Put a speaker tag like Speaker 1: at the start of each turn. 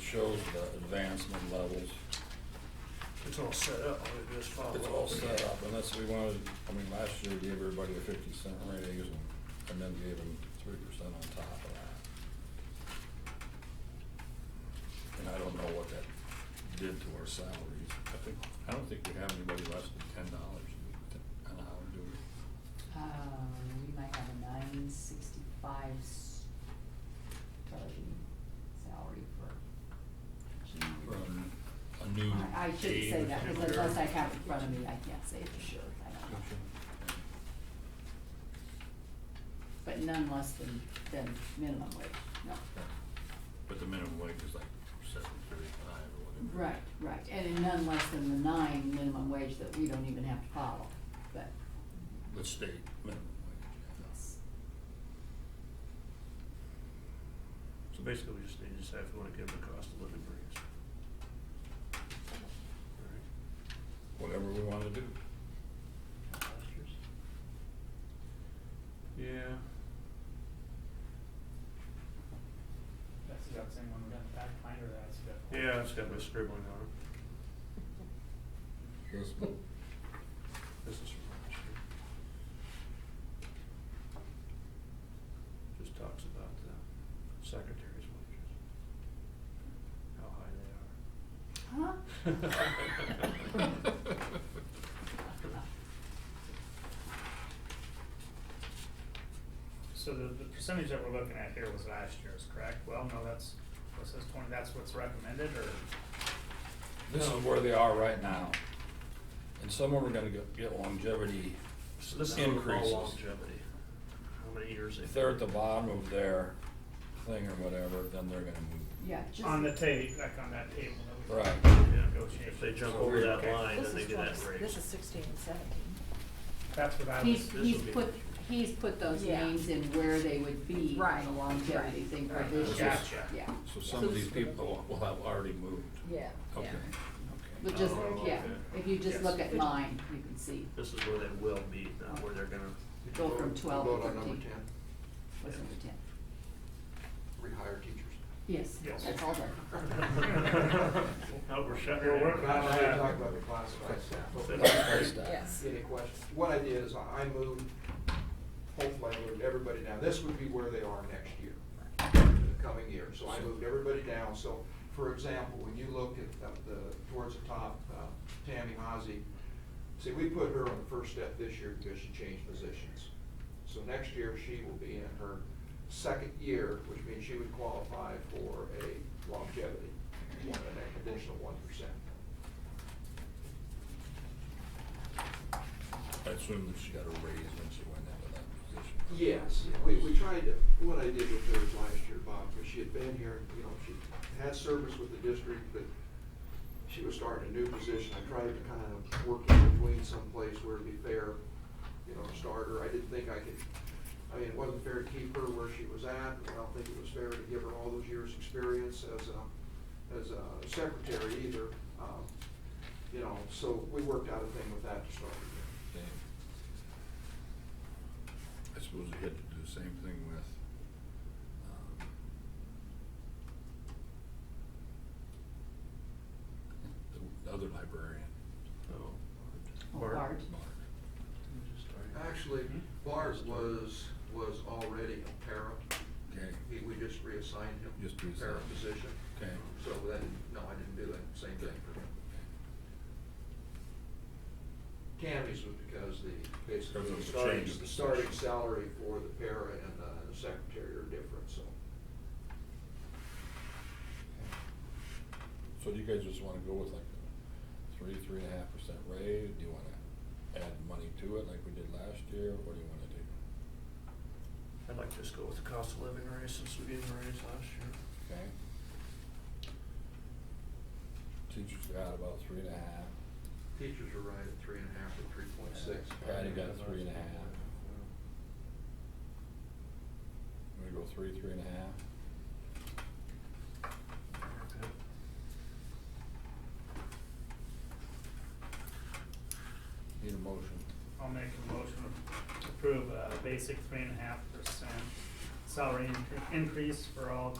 Speaker 1: shows the advancement levels.
Speaker 2: It's all set up, all it is follow.
Speaker 1: It's all set up unless we wanted, I mean, last year we gave everybody a fifty cent raise and, and then gave them three percent on top of that. And I don't know what that did to our salaries. I think, I don't think we have anybody less than ten dollars an hour, do we?
Speaker 3: Uh, we might have a nine sixty-five starting salary for junior.
Speaker 1: From a new.
Speaker 3: I I shouldn't say
Speaker 1: aide
Speaker 3: that,
Speaker 1: or
Speaker 3: because unless I
Speaker 1: something.
Speaker 3: have it in front of me, I can't say for sure, I don't know. But none less than, than minimum wage, no.
Speaker 1: But the minimum wage is like seven thirty-five or whatever.
Speaker 3: Right, right, and in none less than the nine minimum wage that we don't even have to follow, but,
Speaker 1: The state minimum wage.
Speaker 3: yes.
Speaker 2: So basically, we just need to decide if we wanna give them a cost of living raise. All
Speaker 1: Whatever we wanna do.
Speaker 2: right. Yeah,
Speaker 4: That's the exact same one we got in the back binder that's got.
Speaker 2: yeah, it's got my scribbling on it.
Speaker 1: Yes.
Speaker 2: This is from last year. Just talks about the secretary's wages. How high they are.
Speaker 3: Huh?
Speaker 4: So the, the percentage that we're looking at here was last year's, correct? Well, no, that's, this is twenty, that's what's recommended, or,
Speaker 1: This is where they are right now. And some of them are gonna go- get longevity
Speaker 2: So this is all about
Speaker 1: increases.
Speaker 2: longevity. How many years
Speaker 1: If
Speaker 2: they've.
Speaker 1: they're at the bottom of their thing or whatever, then they're gonna move.
Speaker 3: Yeah, just.
Speaker 4: on the table, like on that table that we.
Speaker 1: Right.
Speaker 4: Negotiated.
Speaker 2: If they jump over that
Speaker 4: Okay.
Speaker 2: line,
Speaker 5: This
Speaker 2: then they
Speaker 5: is
Speaker 2: get that
Speaker 5: 20
Speaker 2: raise.
Speaker 5: This is sixteen and seventeen.
Speaker 4: That's what I was.
Speaker 3: He's,
Speaker 2: this
Speaker 3: he's
Speaker 2: will be-
Speaker 3: put, he's put those
Speaker 5: Yeah.
Speaker 3: names in where they would be on
Speaker 5: Right,
Speaker 3: the longevity
Speaker 5: right,
Speaker 3: thing for
Speaker 5: right.
Speaker 3: this year,
Speaker 4: Gotcha.
Speaker 3: yeah.
Speaker 1: So some of these people will have already moved.
Speaker 5: Yeah,
Speaker 1: Okay.
Speaker 3: But just,
Speaker 2: Oh,
Speaker 3: yeah,
Speaker 2: okay.
Speaker 3: if you just
Speaker 2: Yes.
Speaker 3: look at mine, you can see,
Speaker 2: This is where they will be, not where they're gonna.
Speaker 3: go from twelve
Speaker 6: Vote
Speaker 3: to
Speaker 6: on number
Speaker 3: thirteen.
Speaker 6: ten,
Speaker 3: Was number ten?
Speaker 6: rehire teachers.
Speaker 3: Yes,
Speaker 4: Yes.
Speaker 3: that's all there.
Speaker 2: Now we're shutting.
Speaker 4: We're working
Speaker 6: Now,
Speaker 4: on
Speaker 6: I
Speaker 4: that.
Speaker 6: haven't talked about the classified staff.
Speaker 1: Price tag.
Speaker 5: yes.
Speaker 6: Any questions? What I did is I I moved, hopefully I moved everybody down. This would be where they are next year, the coming year. So I moved everybody down. So, for example, when you look at uh, the, the- towards the top, uh, Tammy Hazy, see, we put her on the first step this year because she changed positions. So next year, she will be in her second year, which means she would qualify for a longevity, one, an additional one percent.
Speaker 1: I assume that she got a raise when she went into that position.
Speaker 6: Yes, we, we tried to, what I did with her last year, Bob, because she had been here, you know, she had service with the district, but she was starting a new position. I tried to kind of work in between someplace where it'd be fair, you know, start her. I didn't think I could, I mean, it wasn't fair to keep her where she was at, and I don't think it was fair to give her all those years' experience as a, as a secretary either. Um, You know, so we worked out a thing with that to start with.
Speaker 1: Okay. I suppose you had to do the same thing with, um, the other librarian,
Speaker 3: Oh,
Speaker 2: Bart.
Speaker 3: Bart.
Speaker 1: Mark.
Speaker 6: Actually, Bart was, was already a para.
Speaker 1: Okay,
Speaker 6: He, we just reassigned him.
Speaker 1: Just reassigned.
Speaker 6: Para position.
Speaker 1: okay.
Speaker 6: So then, no, I didn't do that same thing for him. Tammy's was because the,
Speaker 1: Because
Speaker 6: basically,
Speaker 1: of
Speaker 6: the
Speaker 1: the
Speaker 6: starting,
Speaker 1: change of
Speaker 6: the starting
Speaker 1: position.
Speaker 6: salary for the para and uh, the secretary are different, so.
Speaker 1: So do you guys just wanna go with like a three, three and a half percent raise? Do you wanna add money to it like we did last year? What do you wanna do?
Speaker 2: I'd like to just go with the cost of living raise since we gave them a raise last year.
Speaker 1: Okay? Teachers got about three and a half.
Speaker 6: Teachers are right at three and a half or three point six.
Speaker 1: Patty got three and a half. I'm gonna go three, three and a half.
Speaker 2: Okay.
Speaker 1: Need a motion.
Speaker 4: I'll make a motion to approve a basic three and a half percent salary incre- increase for all